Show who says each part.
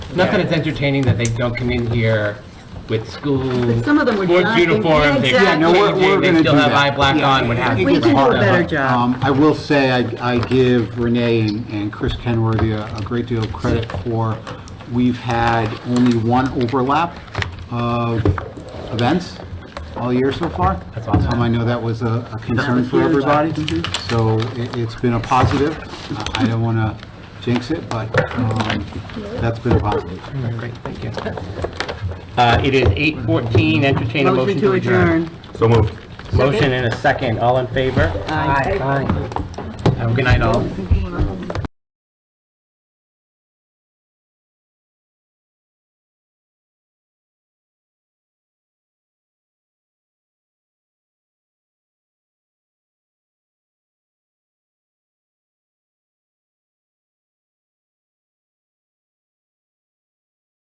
Speaker 1: Not that it's entertaining that they don't come in here with school.
Speaker 2: But some of them were
Speaker 1: Sports
Speaker 2: done-
Speaker 1: uniforms, they
Speaker 2: Exactly. Yeah,
Speaker 1: have
Speaker 2: no,
Speaker 1: blue
Speaker 3: we're- we're
Speaker 1: jeans, they
Speaker 3: gonna
Speaker 1: still
Speaker 3: do
Speaker 1: have
Speaker 3: that.
Speaker 1: eye black on, what have you.
Speaker 2: We can do a better job.
Speaker 3: Um, I will say, I, I give Renee and- and Chris Kenworthy a a great deal of credit for, we've had only one overlap of events all year so far.
Speaker 1: That's awesome.
Speaker 3: Um, I know that was a a concern for everybody, so it, it's been a positive. I- I don't wanna jinx it, but, um, that's been a positive.
Speaker 1: Great, thank you. Uh, it is eight fourteen, entertain a
Speaker 2: Motion to adjourn.
Speaker 4: So moved.
Speaker 2: Uh,
Speaker 1: Motion and a second, all in favor? Aye. Have a good night, all.